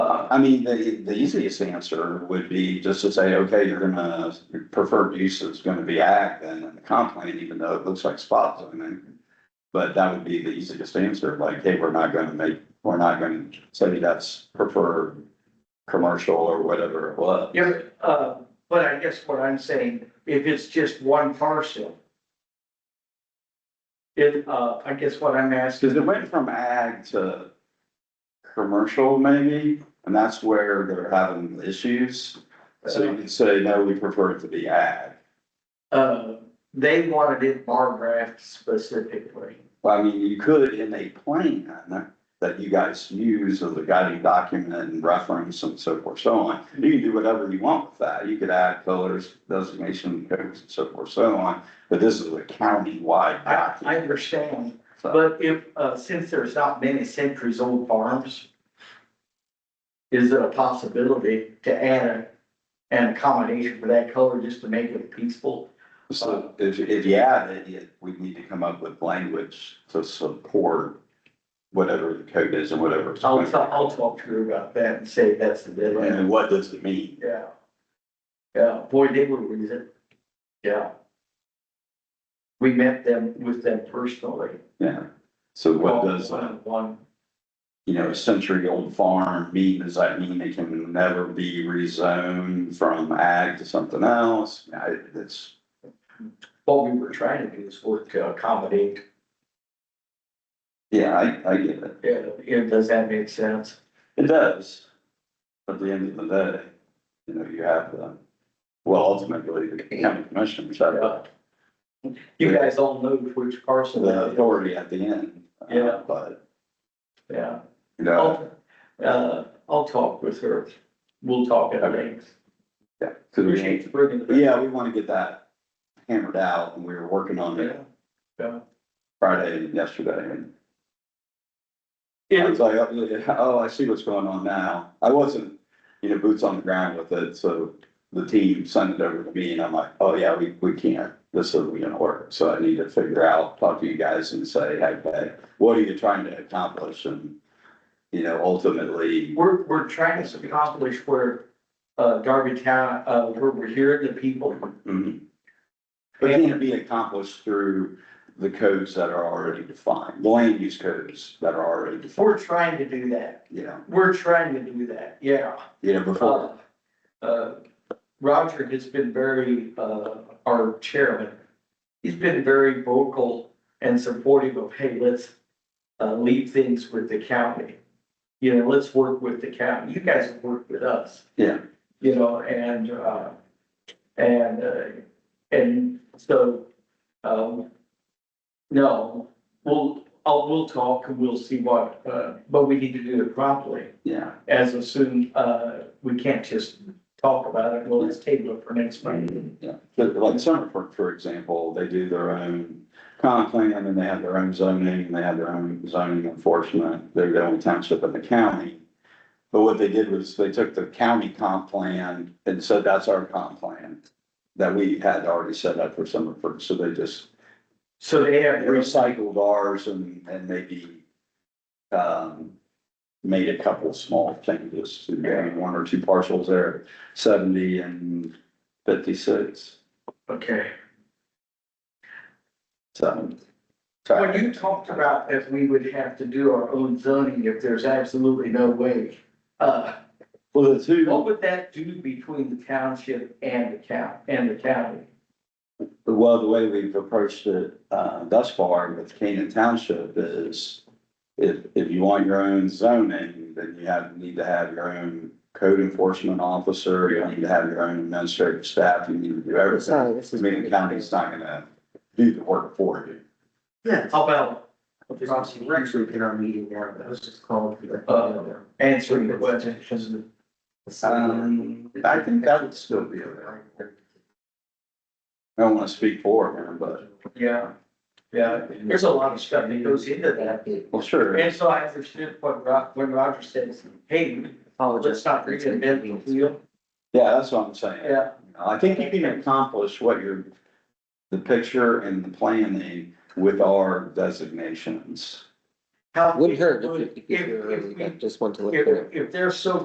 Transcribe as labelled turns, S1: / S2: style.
S1: I mean, the, the easiest answer would be just to say, okay, you're gonna, your preferred use is gonna be ag then in the comp plan, even though it looks like spot zoning. But that would be the easiest answer, like, hey, we're not gonna make, we're not gonna say that's preferred commercial or whatever it was.
S2: Yeah, uh, but I guess what I'm saying, if it's just one parcel. It, uh, I guess what I'm
S1: Cause it
S2: asking,
S1: went from ag to commercial maybe, and that's where they're having issues. So you could say, no, we prefer it to be ag.
S2: uh, they wanted it bar graph specifically.
S1: Well, I mean, you could in a plan that you guys use as a guiding document and reference and so forth, so on. You can do whatever you want with that. You could add colors, designation codes and so forth, so on. But this is a county-wide
S2: I, I
S1: document.
S2: understand,
S1: so-
S2: but if, uh, since there's not many centuries old farms. Is it a possibility to add an accommodation for that color just to make it peaceful?
S1: So if, if you add it, you- we need to come up with language to support whatever the code is and whatever. it's
S2: I'll,
S1: going to
S2: ta- I'll talk to her about that and say that's the
S1: be.
S2: deadline.
S1: And what does it mean?
S2: Yeah. Yeah, boy, they were reason. Yeah. We met them with them personally.
S1: Yeah. So what does uh, that?
S2: One,
S1: you know, a century old farm mean, does that mean it can never be rezoned from ag to something else? I, it's,
S2: what we were trying to do is work uh, to accommodate,
S1: yeah, I, I get it.
S2: yeah, yeah, does that make sense?
S1: It does. At the end of the day, you know, you have the, well, ultimately, the county commissioners have the-
S2: You guys all know which parcel
S1: the
S2: that is,
S1: authority at the end. uh,
S2: Yeah. Oh,
S1: But,
S2: yeah.
S1: you know,
S2: I'll, uh, I'll talk with her, we'll talk at length.
S1: yeah, 'cause we-
S2: Appreciate you bringing it up.
S1: yeah, we want to get that hammered out and we were working on it
S2: Yeah. Yeah.
S1: Friday and yesterday and I
S2: Yeah,
S1: was like, oh, yeah, oh, I see what's going on now. I wasn't, you know, boots on the ground with it, so the team sent it over to me and I'm like, oh, yeah, we, we can't. This isn't gonna work. So I need to figure out, talk to you guys and say, hey, hey, what are you trying to accomplish? And, you know, ultimately,
S2: We're, we're trying to accomplish where, uh, Darby Town, uh, where we're hearing the people.
S1: mhm. But it can't be accomplished through the codes that are already defined, the land use codes that are already defined,
S2: We're trying to do that.
S1: you know,
S2: We're trying to do that, yeah.
S1: you know, before.
S2: Uh, uh, Roger has been very, uh, our chairman, he's been very vocal and supportive of, hey, let's uh, leave things with the county. You know, let's work with the county. You guys have worked with us.
S1: Yeah.
S2: You know, and, uh, and, uh, and so, um, no, we'll, I'll, we'll talk and we'll see what, uh, but we need to do it properly
S1: Yeah,
S2: as of soon, uh, we can't just talk about it, well, let's table it for next month.
S1: Yeah, but like Summerford, for example, they do their own comp plan and they have their own zoning, and they have their own zoning enforcement. They're the only township in the county. But what they did was they took the county comp plan and said, that's our comp plan that we had already set up for Summerford. So they just
S2: So they have,
S1: recycled ours and, and maybe um, made a couple small changes, to maybe one or two parcels there, seventy and fifty-six.
S2: okay.
S1: So.
S2: When you talked about that we would have to do our own zoning if there's absolutely no way, uh,
S1: Well, the two,
S2: what would that do between the township and the county, and the county?
S1: well, the way we've approached it, uh, thus far with Canaan Township is if, if you want your own zoning, then you have, need to have your own code enforcement officer, you need to have your own administrative staff, you need to do everything.
S3: Sorry, this is.
S1: Meaning county's not gonna do the work for you.
S3: Yeah.
S2: How about
S3: Actually, we in our meeting now, that was just called.
S2: Uh, answering the question?
S1: Um, I think that would still be okay. I don't wanna speak for her, but,
S2: Yeah, yeah, there's a lot of stuff that goes into that.
S1: well, sure.
S2: And so I understood what Ro, when Roger says, hey, let's not reinvent the wheel.
S1: Yeah, that's what I'm saying.
S2: Yeah,
S1: I think you can accomplish what you're, the picture and the planning with our designations.
S2: How
S3: Wouldn't
S2: people
S3: hurt if,
S2: would-
S3: you- if you
S2: If, if,
S3: just want to
S2: we-
S3: look at it.
S2: if, if they're so